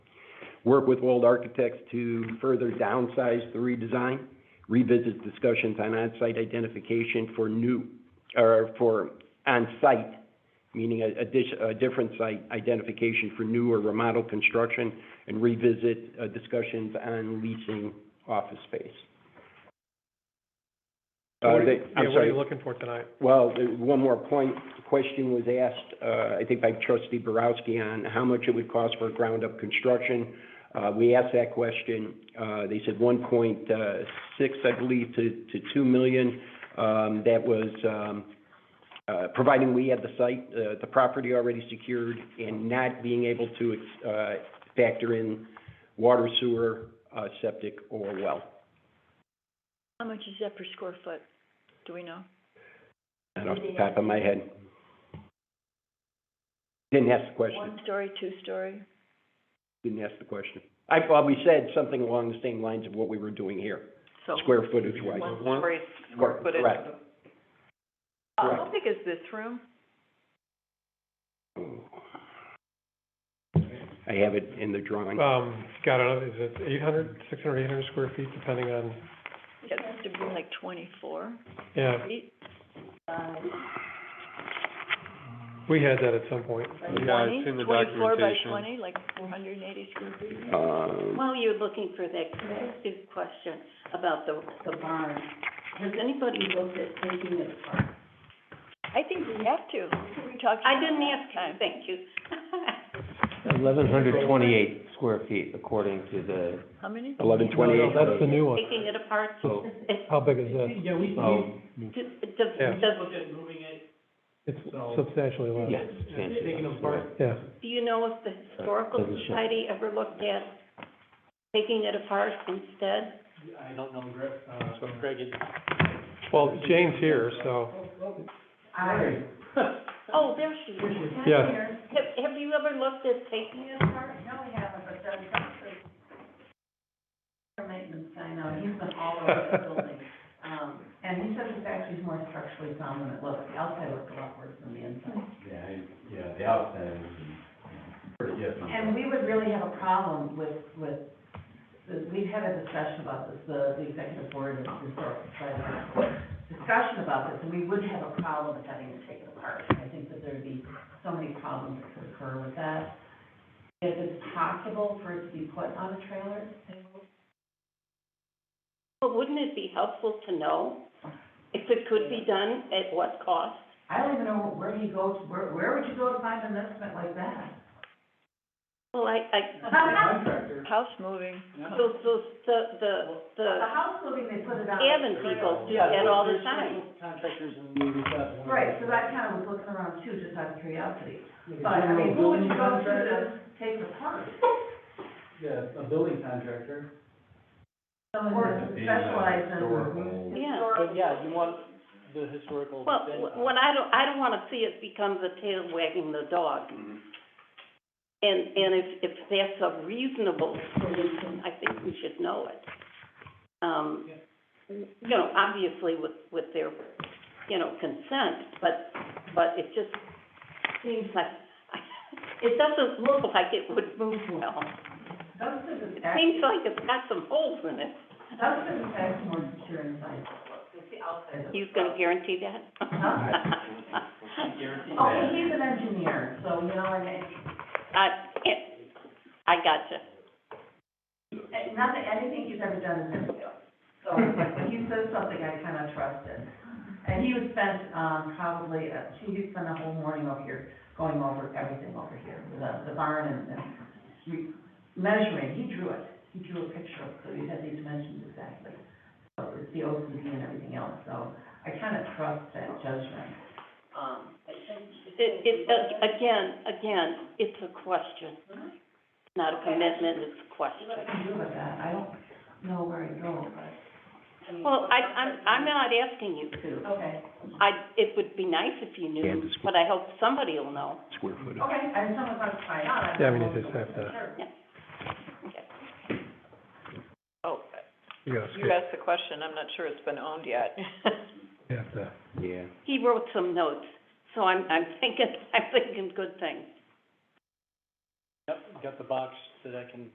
work with World Architects to further downsize the redesign, revisit discussions on on-site identification for new, or for on-site, meaning a, a dis- a different site identification for new or remodel construction, and revisit, uh, discussions on leasing office space. So Uh, what are they- you- I'm yeah, What are sorry. you looking for tonight? Well, the- one more point, The question was asked, uh, I think by trustee Borowski on how much it would cost for ground-up construction. Uh, we asked that question, uh, they said one point, uh, six, I believe, to, to two million. Um, that was, um, uh, providing we had the site, uh, the property already secured and not being able to, ex- uh, factor in water, sewer, uh, septic, or well. How much is that per square foot? Do we know? Not off the top of my head. Didn't ask the question, One story, two story? didn't ask the question. I, well, we said something along the same lines of what we were doing here, Oh. So, square footage wise. one story, square Correct, footage. correct. Uh, How Correct. big is this room? I have it in the drawing. Um, God, I don't know, is it 800, 600, 800 square feet, depending on, It has to be like twenty-four yeah, feet, we had that at some point. Yeah, it's in the twenty, twenty-four by documentation. twenty, like four hundred and eighty square feet. Um, While you're looking for that, can I ask you a question about the, the barn? Has anybody looked at taking it apart? I think we have to. We talked. I didn't about ask time. you, thank you. Eleven hundred twenty-eight square feet according to the, How many? eleven No, twenty-eight, That's the new one. Taking it apart, so, it's, How big is that? oh, the, Yeah. the, the- It's substantially less. yeah, substantially less, right. Yeah, do you know if the historical Doesn't show. society ever looked at taking it apart instead? uh, well, Jane's here, so, Oh, there she is. yeah. Have, have you ever looked at taking it apart? No, I haven't, but Doug Humphrey, our maintenance guy now, he's been all over the building. Um, and he says it's actually more structurally sound than it looks. The outside looks a lot worse than the inside. Yeah, I- yeah, the outside is, pretty yes, And we would really have a problem with, with, the- we've had a discussion about this, the, the executive board and the historical society. had a Discussion about this, and we would have a problem with having it taken apart. I think that there'd be so many problems that could occur with that. If it's possible for it to be put on a trailer. Well, wouldn't it be helpful to know if it could be done, at what cost? I don't even know where he goes, where, where would you go to find an estimate like that? Well, I, I. House moving. So, so, the, the, the. house moving, they put it on. Avon people do that all the time. Contractors and. Right, so that kind of was looking around too, just out of curiosity. But, I mean, who would you go to to take the part? Yeah, a building contractor. Or specialize in. Yeah. But yeah, you want the historical Well, thing. wh- what I don't, I don't wanna see it become the tail wagging the dog. And, and if, if that's a reasonable solution, I think we should know it. Um, you know, obviously with, with their, you know, consent, but, but it just seems like, it doesn't look like it would move well. It seems like it's got some holes in it. He's gonna guarantee that? Uh, Oh, he's an engineer, so, you know, and it. I, it, I gotcha. Not that, anything he's ever done is himself, so when he says something, I kinda trust it. And he would spend, um, probably, uh, he would spend a whole morning over here, going over everything over here, the, the barn and, and re- measuring, he drew it, he drew a picture of, it, so he had these dimensions exactly. So it's the OCD and everything else, so I kind of trust that judgment. Um, It, it, a- again, again, it's a question, not a commitment, it's a question. What can do with that? I don't know where to go, but. Well, I, I'm, I'm not asking you to. Okay. I, it would be nice if you knew, Kansas. but I hope somebody will know. square footage. Okay, I just want to find out. Yeah, we need to have that. Oh, You gotta you skip, asked the question, I'm not sure it's been owned yet. you have to, Yeah. He wrote some notes, so I'm, I'm thinking, I'm thinking good things. Yep, got the box that I can